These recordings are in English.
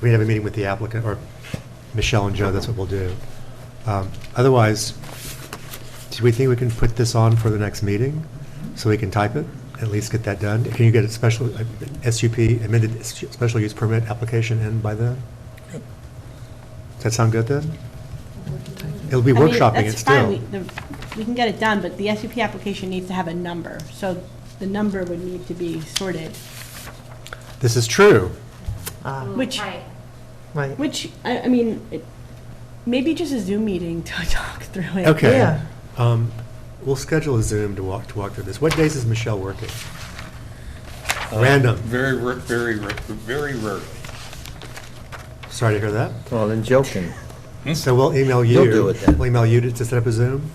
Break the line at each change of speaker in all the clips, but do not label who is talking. we have a meeting with the applicant, or Michelle and Joe, that's what we'll do. Um, Otherwise, do we think we can put this on for the next meeting, so we can type it, at least get that done? Can you get a special, uh, SUP, amended s- special use permit application in by then? Does that sound good then? It'll be
I mean,
workshopping it
that's fine.
still.
We- the- We can get it done, but the SUP application needs to have a number, so the number would need to be sorted,
This is true.
Ah,
which,
Right.
which, I, I mean, it- maybe just a Zoom meeting to talk through it.
Okay.
Yeah.
Um, We'll schedule a Zoom to walk, to walk through this. What days is Michelle working? Random.
Very, ra- very, ra- very rarely.
Sorry to hear that.
Well, then joking.
Hmm?
So we'll email you.
You'll do it then.
We'll email you to to set up a Zoom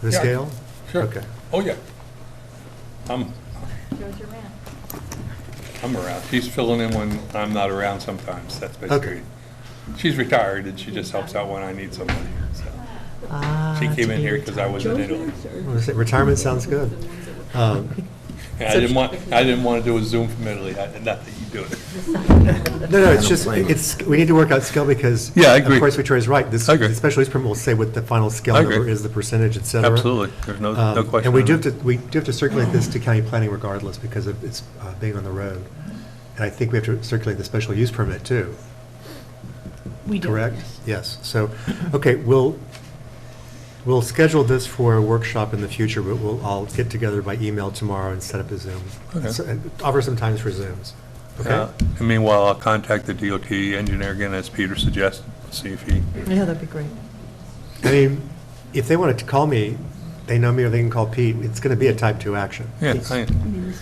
for the
Yeah,
scale?
sure.
Okay.
Oh, yeah. I'm,
Joe's your man.
I'm around. She's filling in when I'm not around sometimes. That's
Okay.
basically. She's retired and she just helps out when I need somebody, so.
Ah,
She came in
to
here
be
because I was in Italy.
Well, is it- Retirement sounds good. Um,
And I didn't want, I didn't want to do a Zoom from Italy. I- Not that you do it.
No, no,
I
it's
don't
just,
blame her.
it's, we need to work out scale because.
Yeah, I agree.
Of course, Victoria's right. This
I agree.
the special use permit will say what the final scale
I agree.
number is, the percentage, et cetera.
Absolutely. There's no- no
Um,
question
And we
on
do have
that.
to, we do have to circulate this to county planning regardless because of it's uh, being on the road. And I think we have to circulate the special use permit too.
We do,
Correct?
yes.
Yes. So, okay, we'll, we'll schedule this for a workshop in the future, but we'll all get together by email tomorrow and set up a Zoom.
Okay.
So, and Offer some times for Zooms.
Uh,
Okay?
and Meanwhile, I'll contact the DOT engineer again, as Peter suggested, see if he,
Yeah, that'd be great.
I mean, if they wanted to call me, they know me or they can call Pete. It's going to be a type two action.
yeah,
It's-
I-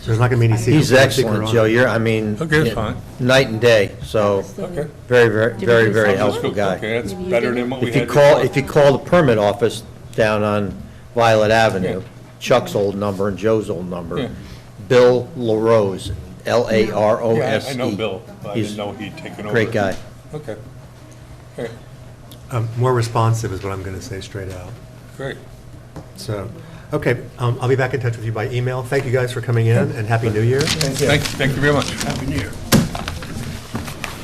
There's not going to be any secret.
He's excellent, Joe. You're, I mean,
Okay,
yeah,
fine.
night and day, so
Oh, okay.
very, very, very, very helpful guy.
Okay, that's better than what we
If you
had
call,
before.
if you call the permit office down on Violet Avenue,
Yeah.
Chuck's old number and Joe's old
Yeah.
number, Bill LaRose,
Yeah,
L-A-R-O-S-E.
I I know Bill. I
oh, E. He's
didn't know he'd taken over.
Great guy.
Okay. All right,
Um, More responsive is what I'm going to say straight out.
Great.
So, okay, um, I'll be back in touch with you by email. Thank you guys for coming in and Happy New Year.
Thank, thank you very much. Happy New Year.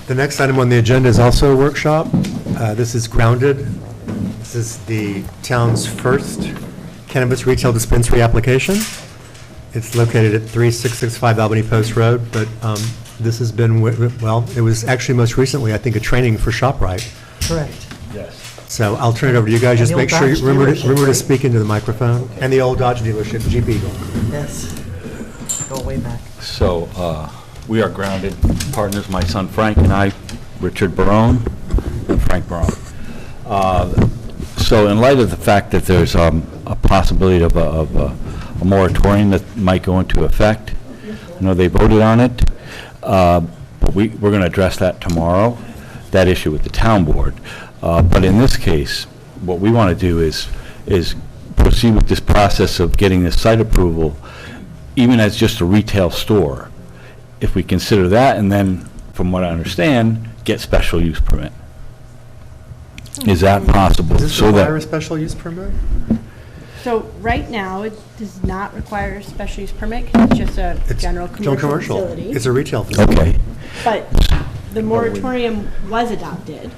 The next item on the agenda is also a workshop. Uh, This is Grounded. This is the town's first cannabis retail dispensary application. It's located at 3665 Albany Post Road, but um, this has been, wi- well, it was actually most recently, I think, a training for ShopRite.
Correct.
So I'll turn it over to you guys. Just
And the
make
old
sure, you
Dodge
remember to
dealership,
remember to
right?
speak into the microphone. And the old Dodge dealership, Jeep Eagle.
Yes. Go way back.
So, uh, we are grounded partners, my son Frank and I, Richard Barone and Frank Barone. Uh, So in light of the fact that there's um, a possibility of a- of a a moratorium that might go into effect, I know they voted on it, uh, but we, we're going to address that tomorrow, that issue with the town board. Uh, But in this case, what we want to do is, is proceed with this process of getting the site approval, even as just a retail store, if we consider that, and then, from what I understand, get special use permit. Is that possible?
Does this
So
require a
that,
special use permit?
So right now, it does not require a special use permit, 'cause it's just a
It's
general commercial facility.
It's a retail facility.
okay,
But
Oh,
the moratorium was adopted.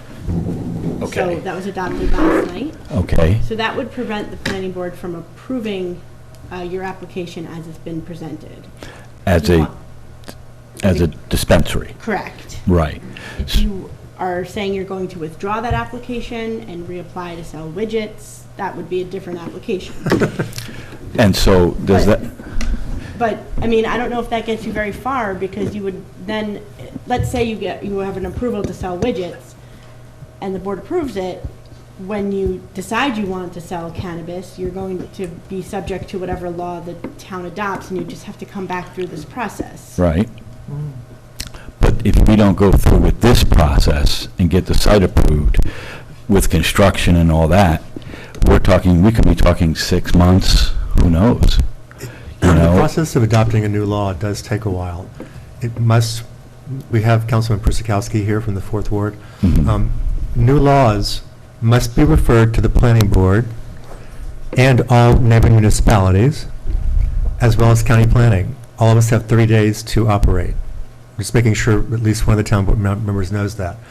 So
Okay.
that was adopted last night.
okay.
So that would prevent the planning board from approving uh, your application as it's been presented.
As
You
a,
want-
as a dispensary,
Correct.
right.
If you are saying you're going to withdraw that application and reapply to sell widgets, that would be a different application.
And so, does
But-
that,
But, I mean, I don't know if that gets you very far, because you would then, let's say you get, you have an approval to sell widgets, and the board approves it, when you decide you want to sell cannabis, you're going to be subject to whatever law the town adopts, and you just have to come back through this process.
right? But if we don't go through with this process and get the site approved with construction and all that, we're talking, we could be talking six months, who knows? You
The
know,
process of adopting a new law does take a while. It must, we have Councilman Persikowski here from the Fourth Ward.
Mhm.
Um, New laws must be referred to the planning board and all neighboring municipalities, as well as county planning. All of us have 30 days to operate. Just making sure at least one of the town board mem- members knows that.